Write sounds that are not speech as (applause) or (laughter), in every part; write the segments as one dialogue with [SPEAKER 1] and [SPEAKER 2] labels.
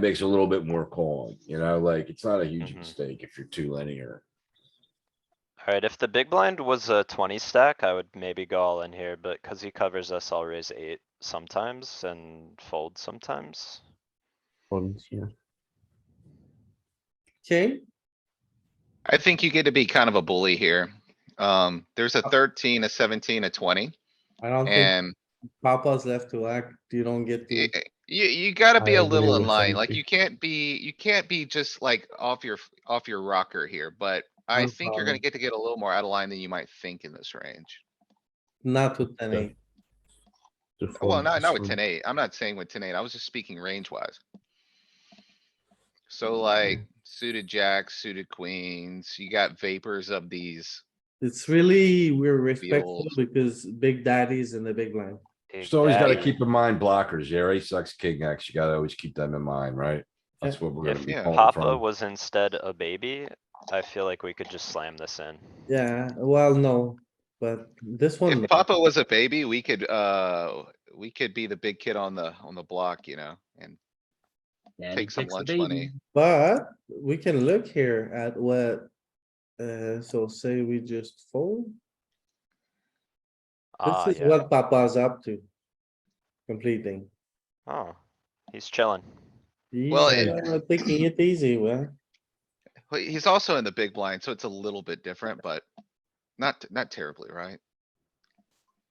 [SPEAKER 1] makes it a little bit more calling, you know, like it's not a huge
[SPEAKER 2] Mhm.
[SPEAKER 1] mistake if you're too linear.
[SPEAKER 2] Alright, if the big blind was a twenty stack, I would maybe go all in here, but cuz he covers us, I'll raise eight sometimes and fold sometimes.
[SPEAKER 3] ones, yeah. Okay,
[SPEAKER 4] I think you get to be kind of a bully here. Um, there's a thirteen, a seventeen, a twenty,
[SPEAKER 3] I don't think
[SPEAKER 4] and
[SPEAKER 3] Papa's left to act, you don't get
[SPEAKER 4] y-
[SPEAKER 3] to,
[SPEAKER 4] you, you gotta be
[SPEAKER 3] I
[SPEAKER 4] a
[SPEAKER 3] agree
[SPEAKER 4] little in
[SPEAKER 3] with
[SPEAKER 4] line. Like
[SPEAKER 3] 17.
[SPEAKER 4] you can't be, you can't be just like off your, off your rocker here, but I
[SPEAKER 3] No
[SPEAKER 4] think you're
[SPEAKER 3] problem.
[SPEAKER 4] gonna get to get a little more out of line than you might think in this range.
[SPEAKER 3] not with ten eight.
[SPEAKER 5] to
[SPEAKER 3] Oh,
[SPEAKER 4] Well,
[SPEAKER 5] fold
[SPEAKER 4] not, not with
[SPEAKER 5] this
[SPEAKER 4] ten
[SPEAKER 5] one.
[SPEAKER 4] eight. I'm not saying with ten eight. I was just speaking range wise.
[SPEAKER 3] Mm.
[SPEAKER 4] So like suited jacks, suited queens, you got vapors of these.
[SPEAKER 3] It's really, we're respectful
[SPEAKER 4] old.
[SPEAKER 3] because big daddy's in the big line.
[SPEAKER 1] Just always gotta
[SPEAKER 2] Exactly.
[SPEAKER 1] keep in mind blockers, Jerry sucks king X, you gotta always keep them in mind, right? That's what we're gonna
[SPEAKER 2] If
[SPEAKER 1] be
[SPEAKER 4] Yeah.
[SPEAKER 1] calling
[SPEAKER 2] Papa
[SPEAKER 1] from.
[SPEAKER 2] was instead a baby, I feel like we could just slam this in.
[SPEAKER 3] Yeah, well, no, but this
[SPEAKER 5] Hmm.
[SPEAKER 3] one.
[SPEAKER 4] If Papa was a baby, we could, uh, we could be the big kid on the, on the block, you know, and
[SPEAKER 5] Yeah,
[SPEAKER 4] take
[SPEAKER 5] he
[SPEAKER 4] some
[SPEAKER 5] takes the
[SPEAKER 4] lunch
[SPEAKER 5] baby.
[SPEAKER 4] money.
[SPEAKER 3] But we can look here at what, uh, so say we just fold.
[SPEAKER 2] Ah,
[SPEAKER 5] Ah,
[SPEAKER 3] This is
[SPEAKER 2] yeah.
[SPEAKER 3] what Papa's up to. Completing.
[SPEAKER 2] Oh, he's chillin'.
[SPEAKER 3] He's
[SPEAKER 4] Well,
[SPEAKER 2] eh,
[SPEAKER 4] it-
[SPEAKER 3] uh, Taking it easy, well,
[SPEAKER 4] Well, he's also in the big blind, so it's a little bit different, but not, not terribly, right?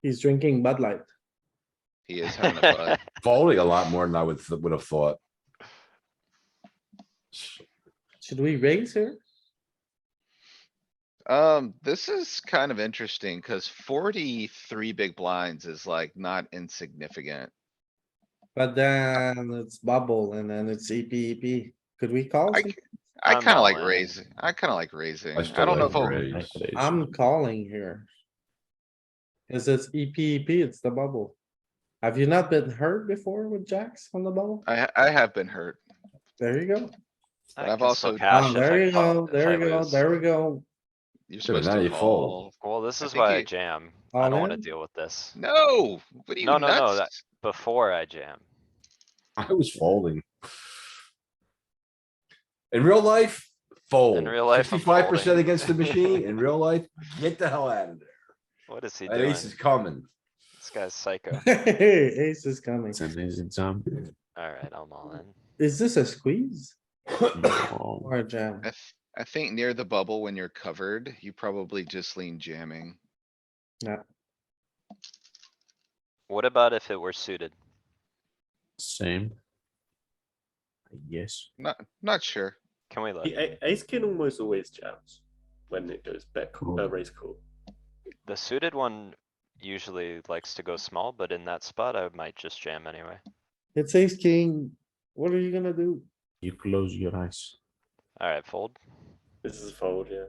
[SPEAKER 3] he's drinking Bud Light.
[SPEAKER 4] He is having a
[SPEAKER 5] (laughs)
[SPEAKER 4] bud.
[SPEAKER 1] Folding a lot more than I would, would have thought.
[SPEAKER 3] Should we raise here?
[SPEAKER 4] Um, this is kind of interesting cuz forty-three big blinds is like not insignificant.
[SPEAKER 3] But then it's bubble and then it's E EP, EP. Could we call?
[SPEAKER 4] I,
[SPEAKER 3] some-
[SPEAKER 4] ki- I
[SPEAKER 2] I'm
[SPEAKER 4] kinda
[SPEAKER 2] all
[SPEAKER 4] like
[SPEAKER 2] in.
[SPEAKER 4] raising, I kinda like raising.
[SPEAKER 1] I
[SPEAKER 4] I
[SPEAKER 1] still
[SPEAKER 4] don't know
[SPEAKER 1] like
[SPEAKER 4] if, I'll-
[SPEAKER 1] raise.
[SPEAKER 3] I'm calling here. Cause it's EP, EP, E it's the bubble. Have you not been hurt before with jacks on the bubble?
[SPEAKER 4] I, ha- I have been hurt.
[SPEAKER 3] There you go.
[SPEAKER 2] I
[SPEAKER 4] But
[SPEAKER 2] can
[SPEAKER 4] I've
[SPEAKER 2] still
[SPEAKER 4] also-
[SPEAKER 2] cash
[SPEAKER 3] Ah,
[SPEAKER 2] if I
[SPEAKER 3] There you
[SPEAKER 2] call-
[SPEAKER 3] go,
[SPEAKER 2] if
[SPEAKER 3] there
[SPEAKER 2] I
[SPEAKER 3] you go,
[SPEAKER 2] lose.
[SPEAKER 3] there we go.
[SPEAKER 4] You're
[SPEAKER 1] Yeah, but
[SPEAKER 4] supposed
[SPEAKER 1] now
[SPEAKER 4] to
[SPEAKER 1] you
[SPEAKER 4] call.
[SPEAKER 1] fold.
[SPEAKER 2] Well, this
[SPEAKER 4] I
[SPEAKER 2] is
[SPEAKER 4] think
[SPEAKER 2] why I
[SPEAKER 4] you-
[SPEAKER 2] jam.
[SPEAKER 3] All
[SPEAKER 2] I don't wanna
[SPEAKER 3] in?
[SPEAKER 2] deal with this.
[SPEAKER 4] No, what are you
[SPEAKER 2] No, no, no, that-
[SPEAKER 4] nuts?
[SPEAKER 2] Before I jam.
[SPEAKER 1] I was folding. In real life, fold.
[SPEAKER 2] real life, I'm
[SPEAKER 1] Fifty-five percent
[SPEAKER 2] folding.
[SPEAKER 1] against
[SPEAKER 2] (laughs)
[SPEAKER 1] the machine. In real life, get the hell out of there.
[SPEAKER 2] What is he
[SPEAKER 1] That
[SPEAKER 2] doing?
[SPEAKER 1] ace is
[SPEAKER 2] This
[SPEAKER 1] coming.
[SPEAKER 2] guy's
[SPEAKER 3] (laughs)
[SPEAKER 2] psycho.
[SPEAKER 3] Ace is coming.
[SPEAKER 5] It's an easy
[SPEAKER 1] (coughs)
[SPEAKER 5] jump.
[SPEAKER 2] Alright, I'm all in.
[SPEAKER 3] Is this a squeeze
[SPEAKER 5] Oh,
[SPEAKER 3] or a jam?
[SPEAKER 4] I, th- I think near the bubble when you're covered, you probably just lean jamming.
[SPEAKER 2] What about if it were suited?
[SPEAKER 5] Same. I guess.
[SPEAKER 4] Not, not sure.
[SPEAKER 2] Can we let
[SPEAKER 6] The
[SPEAKER 2] it?
[SPEAKER 6] a- ace king almost always jams when it goes bet
[SPEAKER 5] Cool.
[SPEAKER 6] uh, raise call.
[SPEAKER 2] The suited one usually likes to go small, but in that spot I might just jam anyway.
[SPEAKER 3] It's ace king. What are you gonna do?
[SPEAKER 5] You close your eyes.
[SPEAKER 2] Alright, fold.
[SPEAKER 6] This is a fold, yeah.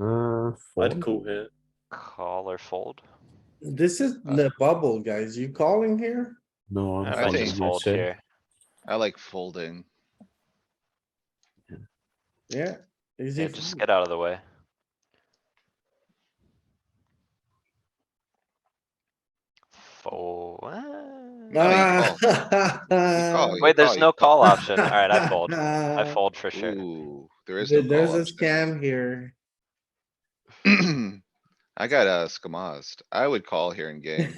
[SPEAKER 5] Uh,
[SPEAKER 6] I'd
[SPEAKER 5] fold.
[SPEAKER 6] call here.
[SPEAKER 2] Call or fold?
[SPEAKER 3] This is
[SPEAKER 4] Uh.
[SPEAKER 3] the bubble, guys. You calling here?
[SPEAKER 5] No, I'm
[SPEAKER 2] I
[SPEAKER 4] I
[SPEAKER 2] might
[SPEAKER 5] folding
[SPEAKER 4] think-
[SPEAKER 2] just fold
[SPEAKER 5] myself.
[SPEAKER 2] here.
[SPEAKER 4] I like folding.
[SPEAKER 3] Yeah.
[SPEAKER 2] Yeah,
[SPEAKER 3] Easy.
[SPEAKER 2] just
[SPEAKER 3] fold.
[SPEAKER 2] get out of the way. Fold.
[SPEAKER 4] I
[SPEAKER 3] (laughs) Ah.
[SPEAKER 4] call.
[SPEAKER 2] Wait, there's
[SPEAKER 4] you
[SPEAKER 2] no
[SPEAKER 4] call.
[SPEAKER 2] call option. Alright, I fold. I fold for sure.
[SPEAKER 4] Ooh, there is. no
[SPEAKER 3] There- There's
[SPEAKER 4] call
[SPEAKER 3] a scam here.
[SPEAKER 4] option. (clears throat) I got uh skamazed. I would call here
[SPEAKER 3] (laughs)
[SPEAKER 4] in game.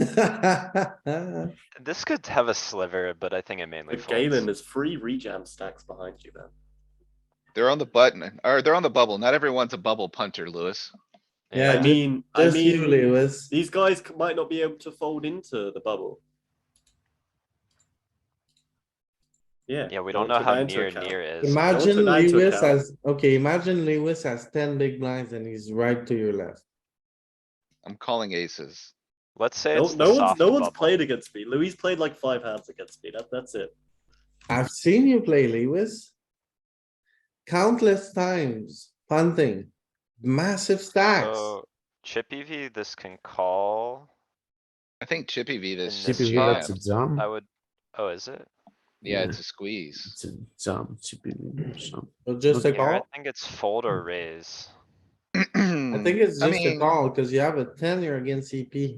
[SPEAKER 2] This could have a sliver, but I think it mainly
[SPEAKER 6] With Galen,
[SPEAKER 2] folds.
[SPEAKER 6] there's three rejam stacks behind you then.
[SPEAKER 4] They're on the button, or they're on the bubble. Not everyone's a bubble punter, Lewis.
[SPEAKER 3] Yeah,
[SPEAKER 6] I mean, I
[SPEAKER 3] Just
[SPEAKER 6] mean,
[SPEAKER 3] you, Lewis.
[SPEAKER 6] these guys c- might not be able to fold into the bubble. Yeah.
[SPEAKER 2] Yeah, we don't
[SPEAKER 6] don't
[SPEAKER 2] know
[SPEAKER 6] take
[SPEAKER 2] how
[SPEAKER 6] that into
[SPEAKER 2] near
[SPEAKER 6] account.
[SPEAKER 2] near is.
[SPEAKER 3] Imagine
[SPEAKER 6] that into
[SPEAKER 3] Lewis
[SPEAKER 6] account.
[SPEAKER 3] has, okay, imagine Lewis has ten big blinds and he's right to your left.
[SPEAKER 4] I'm calling aces.
[SPEAKER 2] Let's say
[SPEAKER 6] No,
[SPEAKER 2] it's
[SPEAKER 6] no
[SPEAKER 2] the
[SPEAKER 6] one's
[SPEAKER 2] soft
[SPEAKER 6] no one's
[SPEAKER 2] bubble.
[SPEAKER 6] played against me. Louis played like five hands against me. That, that's it.
[SPEAKER 3] I've seen you play Lewis. Countless times, punting, massive stacks.
[SPEAKER 4] Oh.
[SPEAKER 2] So Chip E V, this can call.
[SPEAKER 4] I think Chippy V this.
[SPEAKER 2] Chippy
[SPEAKER 4] is
[SPEAKER 5] CPV, that's a
[SPEAKER 4] jammed.
[SPEAKER 5] jump.
[SPEAKER 2] I would, oh, is it?
[SPEAKER 4] Yeah,
[SPEAKER 5] yeah.
[SPEAKER 4] it's a squeeze.
[SPEAKER 5] It's a jump. CPV or something.
[SPEAKER 3] So just a
[SPEAKER 2] Here, I
[SPEAKER 3] call.
[SPEAKER 2] think it's fold or raise.
[SPEAKER 4] I
[SPEAKER 3] I think it's
[SPEAKER 4] I
[SPEAKER 3] just a
[SPEAKER 4] mean-
[SPEAKER 3] call because you have a ten, you're against CP.